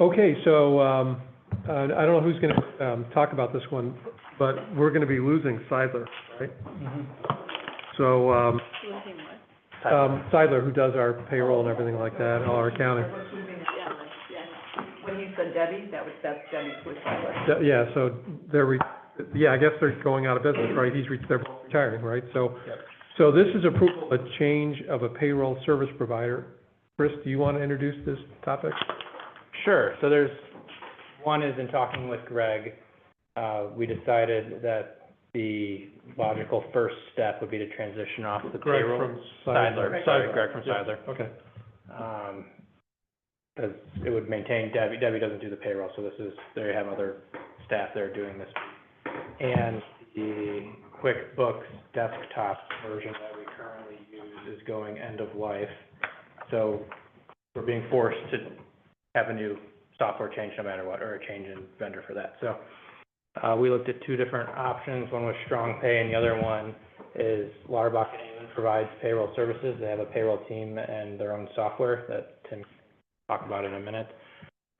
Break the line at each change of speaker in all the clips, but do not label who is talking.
Okay, so, um, uh, I don't know who's gonna, um, talk about this one, but we're gonna be losing Seidler, right?
Mm-hmm.
So, um,
Losing what?
um, Seidler, who does our payroll and everything like that, and all our accounting.
When you said Debbie, that was, that's Debbie's whistleblower.
Th- Yeah, so they're, re- yeah, I guess they're going out of business, right? He's, re- they're both retiring, right? So,
Yep.
so this is approval, a change of a payroll service provider. Chris, do you want to introduce this topic?
Sure, so there's, one is in talking with Greg, uh, we decided that the logical first step would be to transition off the
Greg
payroll.
from
Seidler, sorry, Greg from
Yeah,
Seidler.
Okay.
Um 'cause it would maintain Debbie, Debbie doesn't do the payroll, so this is, they have other staff there doing this. And the QuickBooks desktop version that we currently use is going end of life. So we're being forced to have a new software change no matter what, or a change in vendor for that. So, uh, we looked at two different options, one was Strong Pay and the other one is Larbach and Amon provides payroll services. They have a payroll team and their own software that Tim can talk about in a minute.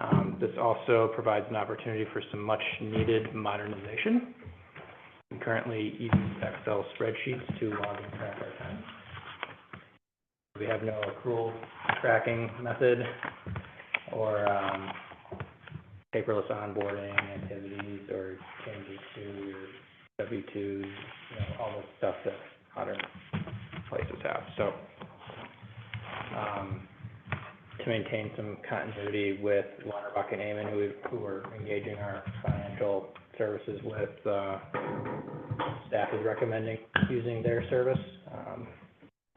Um, this also provides an opportunity for some much needed modernization. We currently use Excel spreadsheets to log and track our time. We have no accrual tracking method or, um, paperless onboarding activities or changes to your W twos, you know, all the stuff that modern places have, so. Um, to maintain some continuity with Lauterbach and Amon, who, who we're engaging our financial services with, uh, staff is recommending using their service. Um,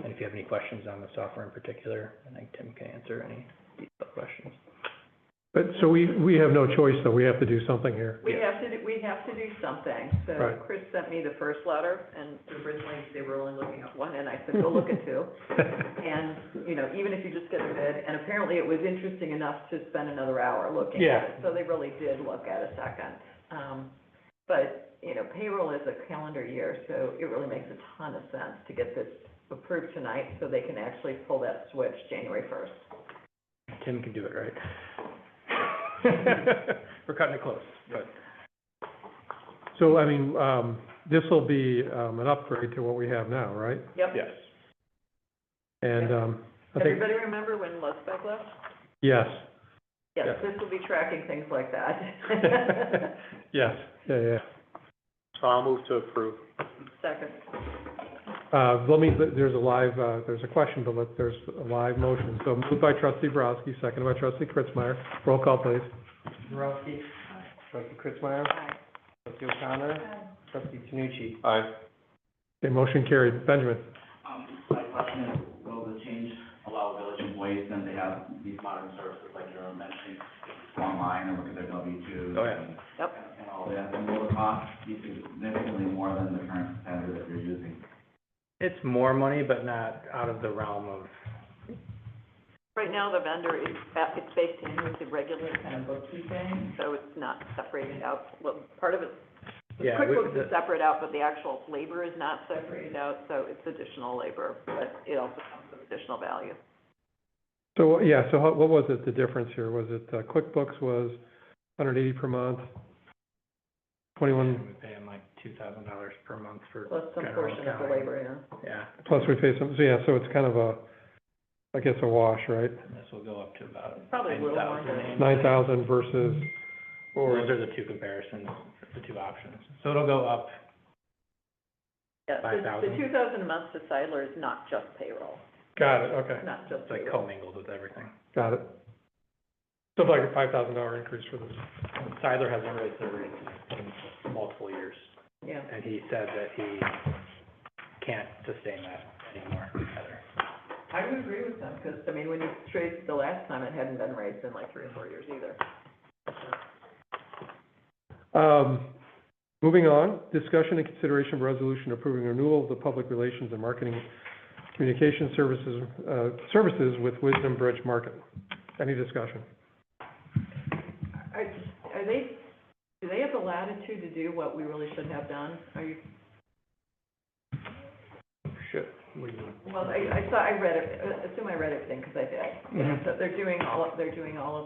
and if you have any questions on the software in particular, I think Tim can answer any detailed questions.
But, so we, we have no choice, though. We have to do something here.
We
Yeah.
have to, do- we have to do something, so
Right.
Chris sent me the first letter, and originally they were only looking at one, and I said, go look at two. And, you know, even if you just get a bid, and apparently it was interesting enough to spend another hour looking
Yeah.
at it. So they really did look at a second. Um, but, you know, payroll is a calendar year, so it really makes a ton of sense to get this approved tonight so they can actually pull that switch January first.
Tim can do it, right? We're cutting it close, but.
So, I mean, um, this will be, um, an upgrade to what we have now, right?
Yep.
Yes.
And, um, I think,
Everybody remember when Lusbeck left?
yes,
Yes,
Yeah.
this will be tracking things like that.
yes, yeah, yeah.
So I'll move to approve.
Second.
Uh, let me, there's a live, uh, there's a question, but let, there's a live motion. So moved by trustee Borowski, seconded by trustee Kritzmeyer. Roll call, please.
Borowski. Trustee Kritzmeyer.
Aye.
Trustee O'Connor. Trustee Tanucci.
Aye.
Okay, motion carried. Benjamin?
Um, My question is, will the change allow village employees then to have these modern services like you were mentioning online and look at their W twos?
Oh, yeah.
and-
Yep.
And all that, and will the cost be significantly more than the current standard that you're using?
It's more money, but not out of the realm of,
Right now, the vendor is, ba- it's baked in with the regular kind of bookkeeping, so it's not separated out. Well, part of it, the
Yeah, we-
QuickBooks
the-
is separate out, but the actual labor is not separated out, so it's additional labor, but it also comes with additional value.
So, yeah, so how- what was it, the difference here? Was it uh, QuickBooks was 180 per month, 21,
we pay them like two thousand dollars per month for
Plus some
general
portion of the
accounting.
labor,
Yeah,
yeah.
plus we pay some, so yeah, so it's kind of a, I guess, a wash, right?
and this will go up to about
Probably a
nine
little more
thousand.
than-
9,000 versus,
Those are the two comparisons, the two options. So it'll go up,
Yeah, the- The
$5,000.
two thousand a month to Sidler is not just payroll,
got it, okay,
not just
it's like
payroll.
commingled with everything.
got it. So it's like a $5,000 increase for this.
Siler hasn't raised their rates in multiple years,
Yeah.
and he said that he can't sustain that anymore either.
I would agree with them, because, I mean, when you traced the last time, it hadn't been raised in like three or four years either.
Um, Moving on, discussion and consideration of resolution approving renewal of the public relations and marketing communication services, uh, services with Wisdom Bridge Market. Any discussion?
Are, are they, do they have the latitude to do what we really should have done? Are you,
Should, what do you mean?
uh, well, I, I saw, I read it, I assume I read everything, because I did. You know, So they're doing all, they're doing all of